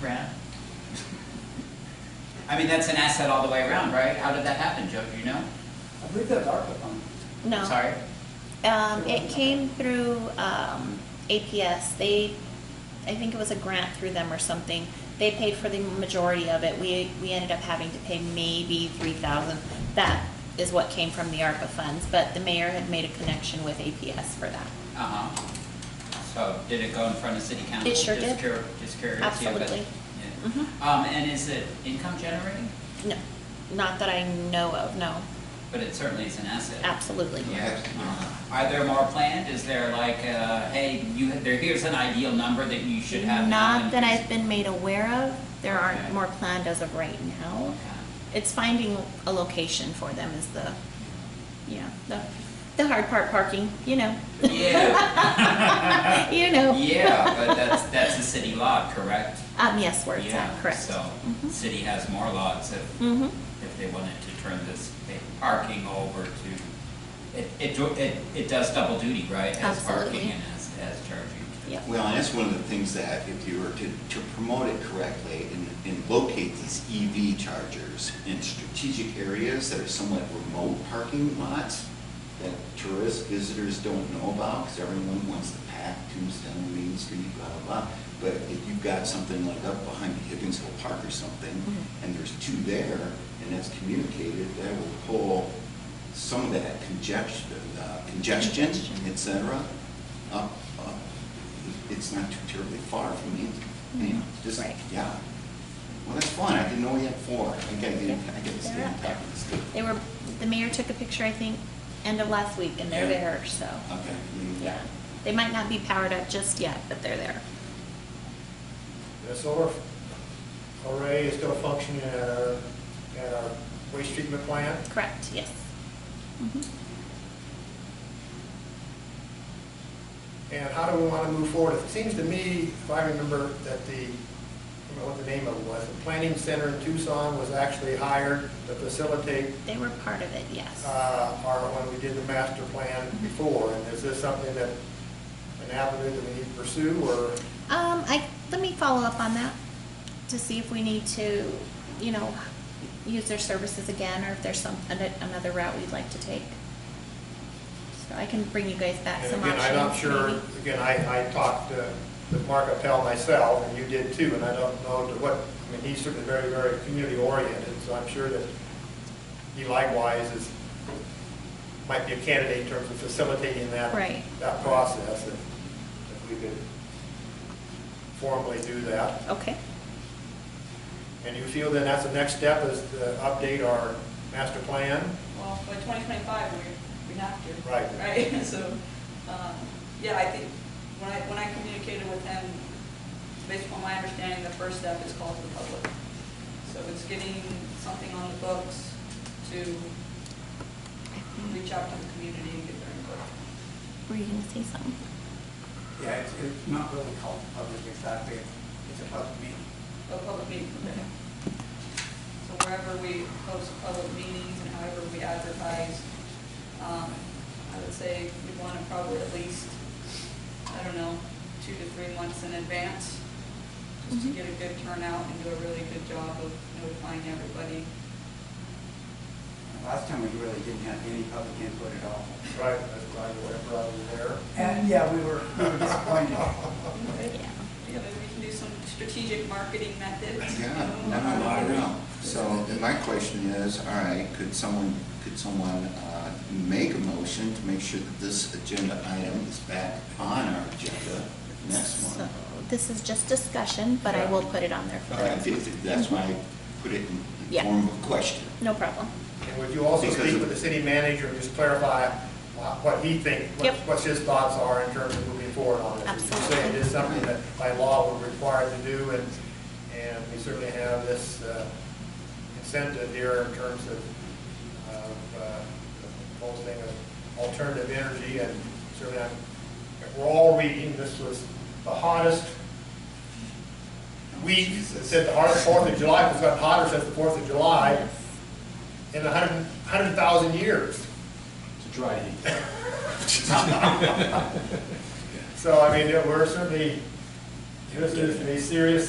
grant? I mean, that's an asset all the way around, right? How did that happen, Joe, do you know? I believe that's ARPA fund. No. Sorry? Um, it came through, um, APS. They, I think it was a grant through them or something. They paid for the majority of it. We, we ended up having to pay maybe three thousand. That is what came from the ARPA funds, but the mayor had made a connection with APS for that. Uh-huh. So did it go in front of city council? It sure Just did. cur- Just curious. yeah, but- Absolutely. yeah. Mhm. Um, and is it income generating? No, not that I know of, no, But it certainly is an asset. absolutely. Yeah. Uh-huh. Are there more planned? Is there like, uh, hey, you, there, here's an ideal number that you should have? now Not and that here's- I've been made aware of. There Okay. aren't more planned as of right now. It's finding a location for them is the, yeah, the, the hard part, parking, you know. Yeah, You know. yeah, but that's, that's a city lot, correct? Um, yes, where it's Yeah, at, correct. So, city has more lots if, Mm-hmm, if they wanted to turn this big parking over to, it, it, do- it, it does double duty, right? As parking Absolutely. and as, as charging. yep. Well, and that's one of the things that if you were to, to promote it correctly and, and locate these EV chargers in strategic areas that are somewhat remote parking lots that tourists, visitors don't know about, because everyone wants to pack Tombstone, Main Street, blah, blah, blah. But if you've got something like up behind Higgins Hill Park or something, Mhm. and there's two there, and that's communicated, that will pull some of that congestion, uh, congestion, Congestion. et cetera, up, up. It's not too terribly far from me, you know, just, Mm-hmm. Right. yeah. Well, that's fun, I didn't know we had four, I gotta get, I gotta stay They're on up top there. of this. good. They were, the mayor took a picture, I think, end of last week, and they're Yeah. there, so, Okay. yeah. They might not be powered up just yet, but they're there. The solar array is still functioning at our, at our waste treatment plant. Correct, yes. Mhm. And how do we want to move forward? It seems to me, if I remember, that the, I don't know what the name of it was, the planning center in Tucson was actually hired to facilitate They were part of it, yes. uh, our, when we did the master plan before. And is this something that, an avenue that we need to pursue, or? Um, I, let me follow up on that to see if we need to, you know, use their services again or if there's some, an- another route we'd like to take. So I can bring you guys back And some again, options. I'm not sure, maybe. again, I, I talked uh, with Mark Appel myself, and you did too, and I don't know to what, I mean, he's certainly very, very community oriented, so I'm sure that he likewise is, might be a candidate in terms of facilitating that. Right. That process, if, if we could formally do that. Okay, And you feel then that's the next step is to update our master plan? Well, by 2025, we, we have to. Right. Right, so, um, yeah, I think, when I, when I communicated with him, based upon my understanding, the first step is call to the public. So it's getting something on the books to reach out to the community and get their input. were you gonna say something? Yeah, it's, it's not really called public exactly, it's a public meeting. A public meeting, okay. So wherever we host public meetings and however we advertise, um, I would say we want to probably at least, I don't know, two to three months in advance, just to Mhm. get a good turnout and do a really good job of notifying everybody. Last time we really didn't have any public input at all. Right. That's why we're probably there. And, yeah, we were we were disappointed. Yeah. Yeah, maybe we can do some strategic marketing methods. you Yeah, know, no, how no, I do we- know. So then my question is, all right, could someone, could someone uh, make a motion to make sure that this agenda item is back on our agenda next So, month? This is just discussion, but I will put it on there for Okay, you. th- That's why I put it in the Yeah. form of a question. No problem. And would you also Because speak of- with the city manager and just clarify wha- what he thinks, Yep. what his thoughts are in terms of moving forward on this? You say it Absolutely. is something that by law we're required to do, and, and we certainly have this uh, incentive here in terms of, of uh, the whole thing of alternative energy, and certainly, I'm- we're all reading, this was the hottest week, Jesus. since the hottest Fourth of July, it's gotten hotter since the Fourth of July in a hundred, hundred thousand years. It's a dry heat. So, I mean, yeah, we're certainly, this is a serious